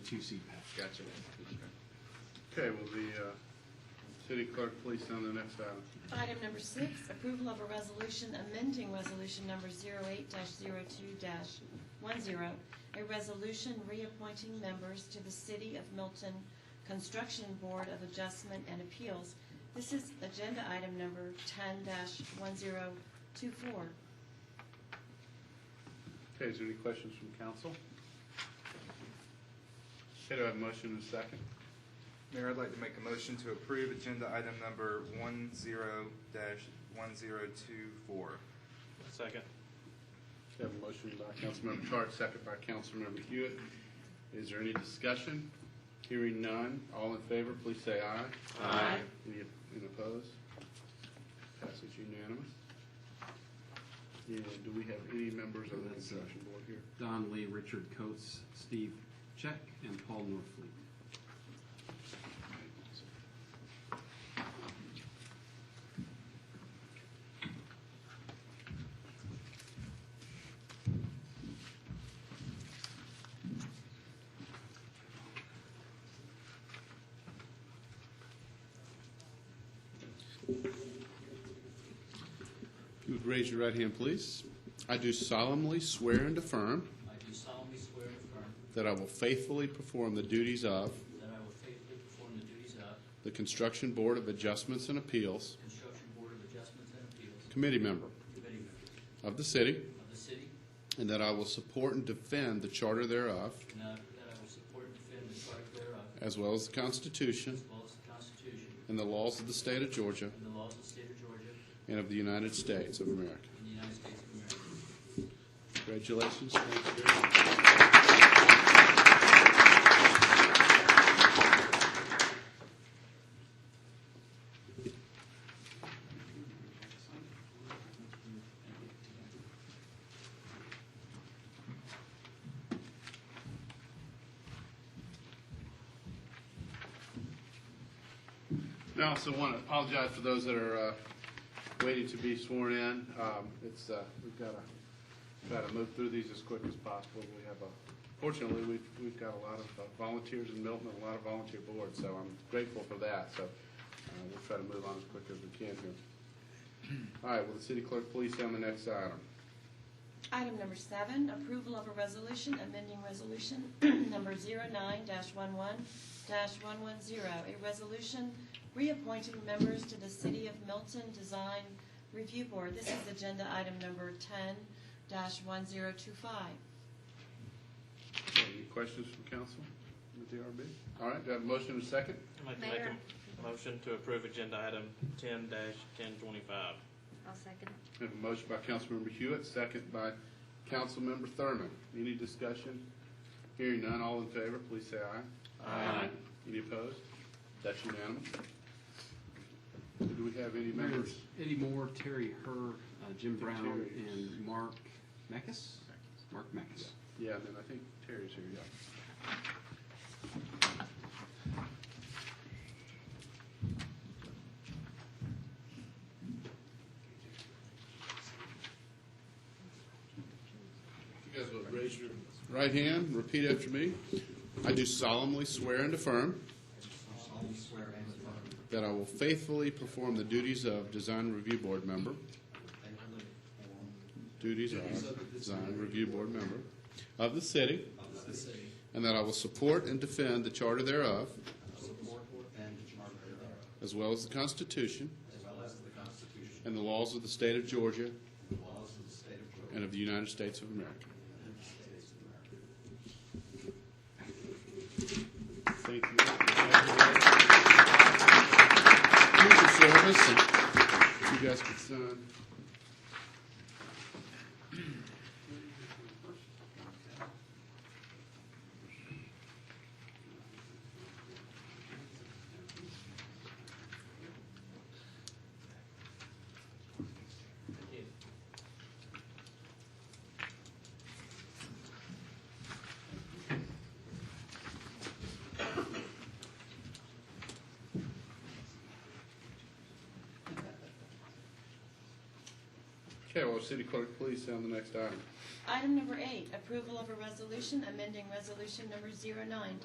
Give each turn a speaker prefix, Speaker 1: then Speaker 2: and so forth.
Speaker 1: two CPACs.
Speaker 2: Gotcha.
Speaker 3: Okay, will the uh, city clerk please send the next item?
Speaker 4: Item number six, approval of a resolution amending resolution number 08-02-10, a resolution reappointing members to the City of Milton Construction Board of Adjustment and Appeals. This is agenda item number 10-1024.
Speaker 3: Okay, is there any questions from council? Okay, do I have a motion and a second?
Speaker 2: Mayor, I'd like to make a motion to approve agenda item number one zero dash one zero two four.
Speaker 5: Second.
Speaker 3: Okay, I have a motion by Councilmember Tarr, second by Councilmember Hewitt. Is there any discussion? Hearing none, all in favor, please say aye.
Speaker 4: Aye.
Speaker 3: Any any opposed? Passes unanimous. And do we have any members of the construction board here?
Speaker 1: Don Lee, Richard Coates, Steve Check, and Paul Norfleet.
Speaker 3: If you would raise your right hand, please. I do solemnly swear and affirm
Speaker 6: I do solemnly swear and affirm
Speaker 3: that I will faithfully perform the duties of
Speaker 6: that I will faithfully perform the duties of
Speaker 3: the Construction Board of Adjustments and Appeals
Speaker 6: Construction Board of Adjustments and Appeals
Speaker 3: Committee Member
Speaker 6: Committee Member
Speaker 3: of the city,
Speaker 6: of the city,
Speaker 3: and that I will support and defend the charter thereof,
Speaker 6: and that that I will support and defend the charter thereof,
Speaker 3: as well as the Constitution
Speaker 6: as well as the Constitution
Speaker 3: and the laws of the state of Georgia
Speaker 6: and the laws of the state of Georgia and
Speaker 3: and of the United States of America.
Speaker 6: the United States of America.
Speaker 3: Congratulations. Thank you very much. I also want to apologize for those that are uh, waiting to be sworn in. Um, It's, uh, we've got to, try to move through these as quick as possible. We have, a fortunately, we've, we've got a lot of uh, volunteers in Milton and a lot of volunteer boards, so I'm grateful for that. So uh, we'll try to move on as quick as we can here. All right, will the city clerk please on the next item?
Speaker 4: Item number seven, approval of a resolution amending resolution number 09-11-110, a resolution reappointing members to the City of Milton Design Review Board. This is agenda item number 10-1025.
Speaker 3: Any questions from council with DRB? All right, do I have a motion and a second?
Speaker 5: I'd like to make
Speaker 7: Mayor.
Speaker 5: a motion to approve agenda item ten dash ten twenty-five.
Speaker 7: I'll second.
Speaker 3: We have a motion by Councilmember Hewitt, second by Councilmember Thurman. Any discussion? Hearing none, all in favor, please say aye. Aye. Any opposed? That's unanimous. Do we have any members?
Speaker 1: Eddie Moore, Terry Herr, uh, Jim Brown,
Speaker 3: Terry.
Speaker 1: and Mark Meckes? Mark Meckes.
Speaker 3: Yeah, and then I think Terry's here, yeah. You guys will raise your right hand, repeat after me. I do solemnly swear and affirm
Speaker 6: I solemnly swear and affirm
Speaker 3: that I will faithfully perform the duties of Design Review Board member,
Speaker 6: that I will perform
Speaker 3: duties of Design Review Board member of the city,
Speaker 6: of the city,
Speaker 3: And that I will support and defend the Charter thereof,
Speaker 6: support and the charter thereof,
Speaker 3: as well as the Constitution
Speaker 6: as well as the Constitution
Speaker 3: and the laws of the State of Georgia
Speaker 6: and the laws of the state of Georgia
Speaker 3: and of the United States of America.
Speaker 6: and the States of America.
Speaker 3: Thank you. Thank you for your service. You guys can sign. Okay, well, City Clerk, please sound the next item.
Speaker 4: Item number eight, approval of a resolution amending resolution number 09